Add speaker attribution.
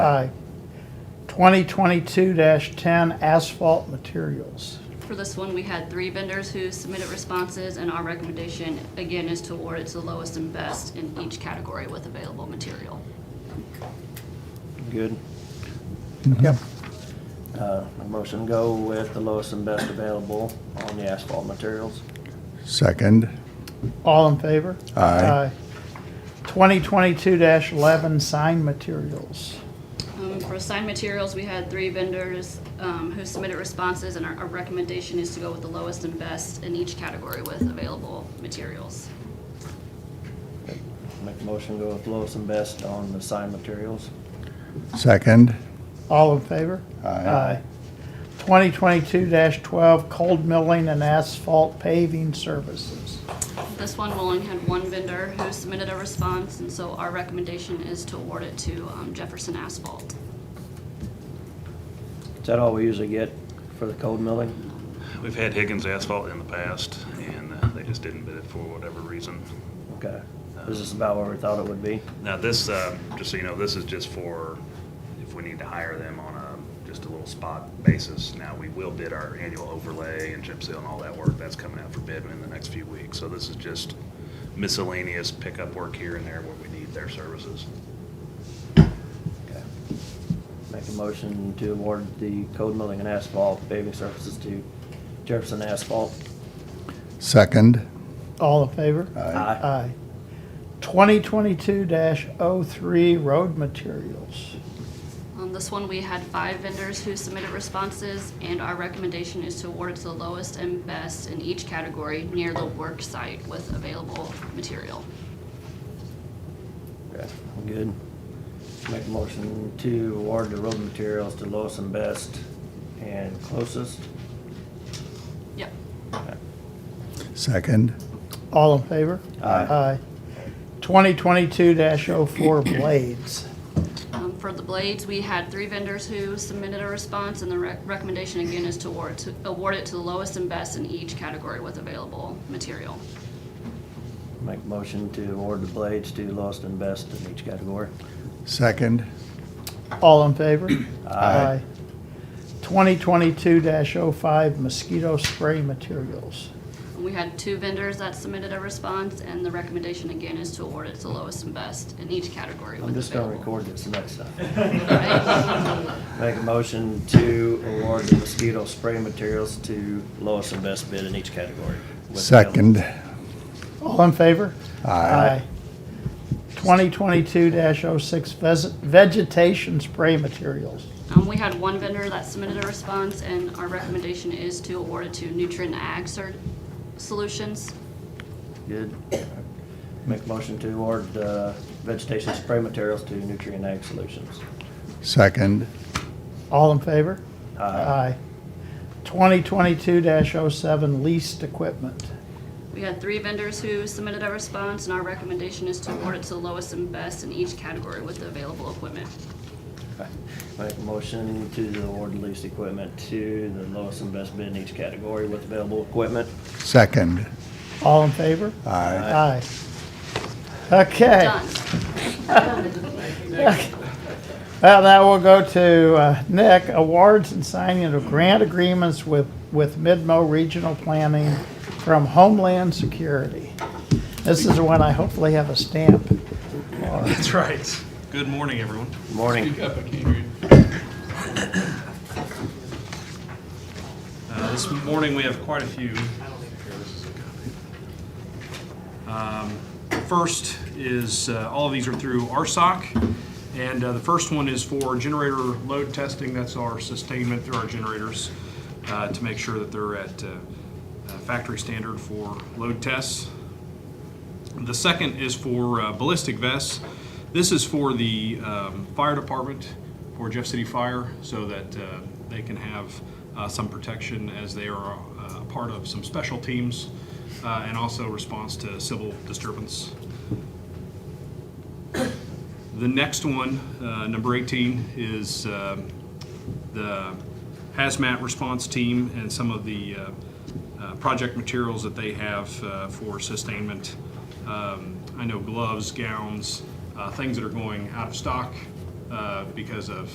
Speaker 1: Aye. 2022-10 asphalt materials.
Speaker 2: For this one, we had three vendors who submitted responses, and our recommendation, again, is to award it to the lowest and best in each category with available material.
Speaker 3: Good.
Speaker 1: Yep.
Speaker 3: Uh, motion go with the lowest and best available on the asphalt materials.
Speaker 4: Second.
Speaker 1: All in favor?
Speaker 4: Aye.
Speaker 1: 2022-11 sign materials.
Speaker 2: Um, For assigned materials, we had three vendors um, who submitted responses, and our our recommendation is to go with the lowest and best in each category with available materials.
Speaker 3: Make a motion go with lowest and best on the sign materials.
Speaker 4: Second.
Speaker 1: All in favor?
Speaker 4: Aye.
Speaker 1: 2022-12 cold milling and asphalt paving services.
Speaker 2: This one, we only had one vendor who submitted a response, and so our recommendation is to award it to um, Jefferson Asphalt.
Speaker 3: Is that all we usually get for the cold milling?
Speaker 5: We've had Higgins Asphalt in the past, and uh, they just didn't bid it for whatever reason.
Speaker 3: Okay. Is this about where we thought it would be?
Speaker 5: Now, this, uh, just so you know, this is just for if we need to hire them on a, just a little spot basis. Now, we will bid our annual overlay and chip seal and all that work. That's coming out for bid in the next few weeks. So this is just miscellaneous pickup work here and there where we need their services.
Speaker 3: Okay. Make a motion to award the cold milling and asphalt paving services to Jefferson Asphalt.
Speaker 4: Second.
Speaker 1: All in favor?
Speaker 4: Aye.
Speaker 3: Aye.
Speaker 1: Aye. 2022-03 road materials.
Speaker 2: On Um, this one, we had five vendors who submitted responses, and our recommendation is to award it to the lowest and best in each category near the work site with available material.
Speaker 3: Okay, good. Make a motion to award the road materials to lowest and best and closest.
Speaker 2: Yep.
Speaker 4: Second.
Speaker 1: All in favor?
Speaker 3: Aye.
Speaker 1: 2022-04 blades.
Speaker 2: Um, For the blades, we had three vendors who submitted a response, and the rec- recommendation again is to award, to award it to the lowest and best in each category with available material.
Speaker 3: Make a motion to award the blades to lowest and best in each category.
Speaker 4: Second.
Speaker 1: All in favor?
Speaker 4: Aye.
Speaker 1: 2022-05 mosquito spray materials.
Speaker 2: And We had two vendors that submitted a response, and the recommendation again is to award it to the lowest and best in each category
Speaker 3: I'm
Speaker 2: with
Speaker 3: just gonna
Speaker 2: available.
Speaker 3: record this next time.
Speaker 2: Right?
Speaker 3: Make a motion to award the mosquito spray materials to lowest and best bid in each category. with
Speaker 4: Second.
Speaker 1: All in favor?
Speaker 4: Aye.
Speaker 1: 2022-06 ves- vegetation spray materials.
Speaker 2: Um, we had one vendor that submitted a response, and our recommendation is to award it to Nutrien Ag Ser- Solutions.
Speaker 3: available. Good. Make a motion to award the vegetation spray materials to Nutrient Ag Solutions.
Speaker 4: Second.
Speaker 1: All in favor?
Speaker 3: Aye.
Speaker 1: 2022-07 leased equipment.
Speaker 2: We had three vendors who submitted a response, and our recommendation is to award it to the lowest and best in each category with the available equipment.
Speaker 3: Make a motion to award the leased equipment to the lowest and best bid in each category with available equipment.
Speaker 4: Second.
Speaker 1: All in favor? Aye.
Speaker 4: Aye.
Speaker 1: Okay.
Speaker 2: Done.
Speaker 1: Well, now we'll go to uh, Nick, awards and signing of grant agreements with, with Midmo Regional Planning from Homeland Security. This is the one I hopefully have a stamp.
Speaker 6: That's right. Good morning, everyone.
Speaker 3: Morning.
Speaker 6: Speak up, I can't hear you. Uh, This morning, we have quite a few. Um, First is, uh, all of these are through RSOC, and uh, the first one is for generator load testing. That's our sustainment through our generators uh, to make sure that they're at uh, uh, factory standard for load tests. The second is for uh, ballistic vests. This is for the um, fire department, for Jeff City Fire, so that uh, they can have uh, some protection as they are uh, a part of some special teams uh, and also response to civil disturbance. The next one, uh, number 18, is um, the hazmat response team and some of the uh, uh, project materials that they have uh, for sustainment. Um, I know gloves, gowns, uh, things that are going out of stock uh, because of